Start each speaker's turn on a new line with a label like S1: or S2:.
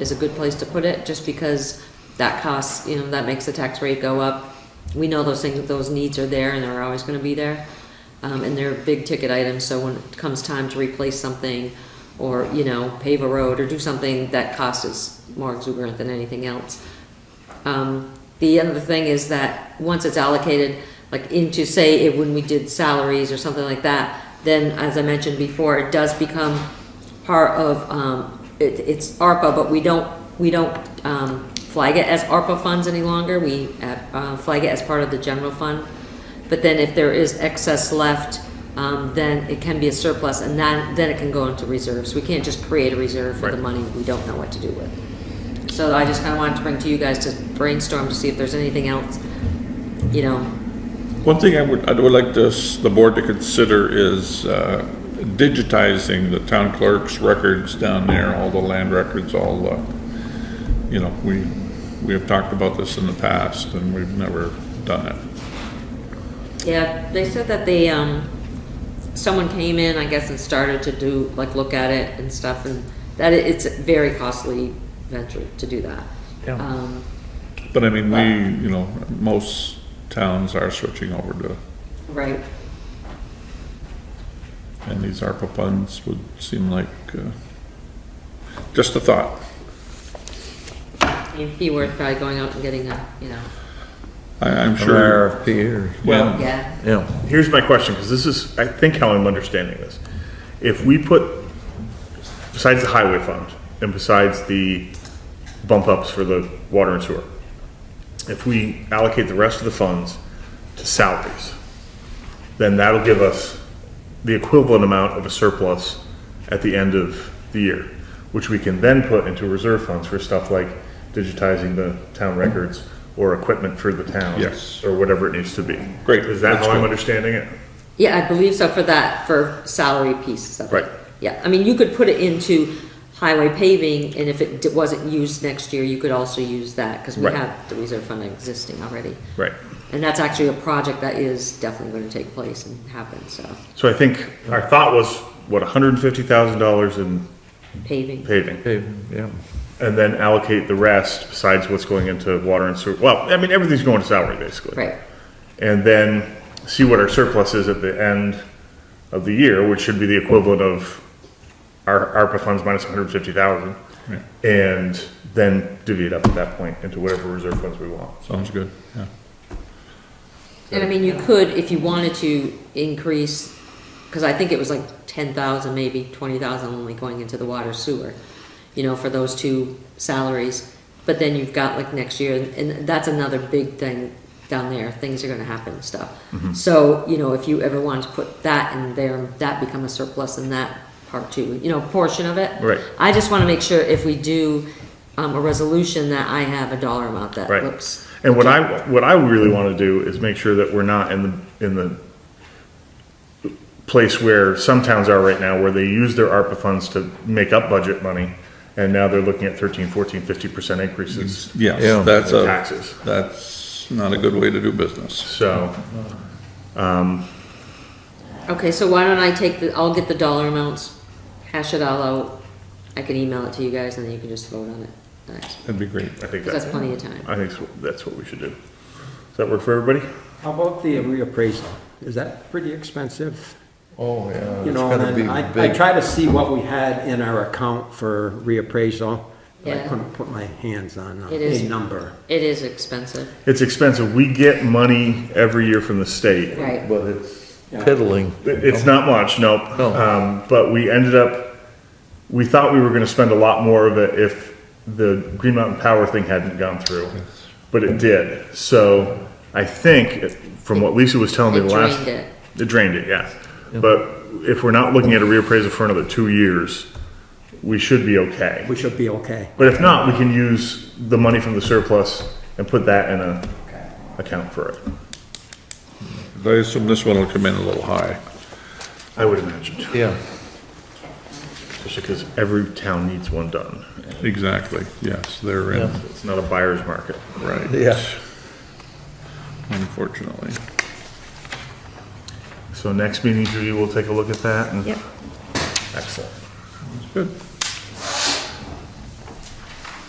S1: is a good place to put it, just because that costs, you know, that makes the tax rate go up. We know those things, those needs are there and they're always gonna be there. Um, and they're big ticket items, so when it comes time to replace something or, you know, pave a road or do something, that cost is more exuberant than anything else. Um, the other thing is that once it's allocated, like into, say, it- when we did salaries or something like that, then as I mentioned before, it does become part of, um, it, it's ARPA, but we don't, we don't, um, flag it as ARPA funds any longer. We, uh, flag it as part of the general fund. But then if there is excess left, um, then it can be a surplus and then, then it can go into reserves. We can't just create a reserve for the
S2: Right.
S1: money we don't know what to do with. So I just kinda wanted to bring to you guys to brainstorm to see if there's anything else, you know,
S2: One thing I would, I would like this, the board to consider is uh, digitizing the town clerk's records down there, all the land records, all the, you know, we, we have talked about this in the past and we've never done it.
S1: Yeah, they said that they, um, someone came in, I guess, and started to do, like, look at it and stuff, and that it- it's a very costly venture to do that.
S3: Yeah.
S1: Um,
S2: But I mean, we, you know, most towns are switching over to,
S1: right,
S2: and these ARPA funds would seem like, uh, just a thought.
S1: it'd be worth probably going out and getting a, you know,
S2: I, I'm
S4: An
S2: sure,
S4: RFP or,
S2: well,
S1: yeah,
S4: yeah,
S3: Here's my question, because this is, I think how I'm understanding this. If we put, besides the highway fund, and besides the bump ups for the water and sewer, if we allocate the rest of the funds to salaries, then that'll give us the equivalent amount of a surplus at the end of the year, which we can then put into reserve funds for stuff like digitizing the town records or equipment for the town.
S2: Yes.
S3: Or whatever it needs to be.
S2: Great.
S3: Is that
S2: That's
S3: how I'm
S2: good.
S3: understanding it?
S1: yeah, I believe so for that, for salary piece of it.
S2: Right.
S1: Yeah, I mean, you could put it into highway paving, and if it d- wasn't used next year, you could also use that, cause we
S2: Right.
S1: have the reserve fund existing already.
S3: Right.
S1: And that's actually a project that is definitely gonna take place and happen, so
S3: So I think our thought was, what, hundred and fifty thousand dollars in
S1: paving.
S3: paving?
S4: okay, yeah.
S3: And then allocate the rest besides what's going into water and sewer. Well, I mean, everything's going to salary basically.
S1: Right,
S3: and then see what our surplus is at the end of the year, which should be the equivalent of our ARPA funds minus one hundred fifty thousand,
S2: Right.
S3: and then divvy it up at that point into whatever reserve funds we want.
S2: sounds good, yeah.
S1: and I mean, you could, if you wanted to, increase, because I think it was like ten thousand, maybe twenty thousand only going into the water sewer, you know, for those two salaries. But then you've got like next year, and that's another big thing down there, things are gonna happen and stuff.
S3: Mm-hmm.
S1: So, you know, if you ever wanted to put that in there, that become a surplus in that part too, you know, portion of it.
S3: Right.
S1: I just wanna make sure if we do, um, a resolution that I have a dollar amount that
S3: Right.
S1: looks
S3: And what I, what I really want to do is make sure that we're not in the, in the place where some towns are right now, where they use their ARPA funds to make up budget money, and now they're looking at thirteen, fourteen, fifty percent increases.
S4: Yeah.
S2: Yes, that's
S3: in
S2: a,
S3: Taxes.
S2: that's not a good way to do business.
S3: So,
S1: Okay, so why don't I take the, I'll get the dollar amounts, hash it all out. I can email it to you guys and then you can just vote on it. Nice.
S2: That'd be great.
S3: I think
S1: Because that's
S3: that,
S1: plenty of time.
S3: I think so- that's what we should do. Does that work for everybody?
S5: How about the reappraisal? Is that pretty expensive?
S4: Oh, yeah.
S5: You know, and I, I try to see what we had in our account for reappraisal. but
S1: Yeah.
S5: I couldn't put my hands on uh,
S1: It is-
S5: a number.
S1: It is expensive.
S3: It's expensive. We get money every year from the state.
S1: Right.
S4: But it's piddling.
S3: It- It's not much, nope.
S4: No.
S3: Um, but we ended up, we thought we were gonna spend a lot more of it if the Green Mountain Power thing hadn't gone through, but it did. So I think, it- from what Lisa was telling me
S1: It
S3: the last.
S1: drained it.
S3: It drained it, yeah. But if we're not looking at a reappraisal for another two years, we should be okay.
S5: We should be okay.
S3: But if not, we can use the money from the surplus and put that in a account for it.
S2: I assume this one will come in a little high.
S3: I would imagine,
S4: Yeah,
S3: especially because every town needs one done.
S2: Exactly, yes, they're in,
S4: Yeah.
S3: It's not a buyer's market.
S2: right.
S4: Yeah.
S2: Unfortunately.
S3: So next meeting, Judy, we'll take a look at that and.
S1: Yep.
S3: Excellent.
S2: Good.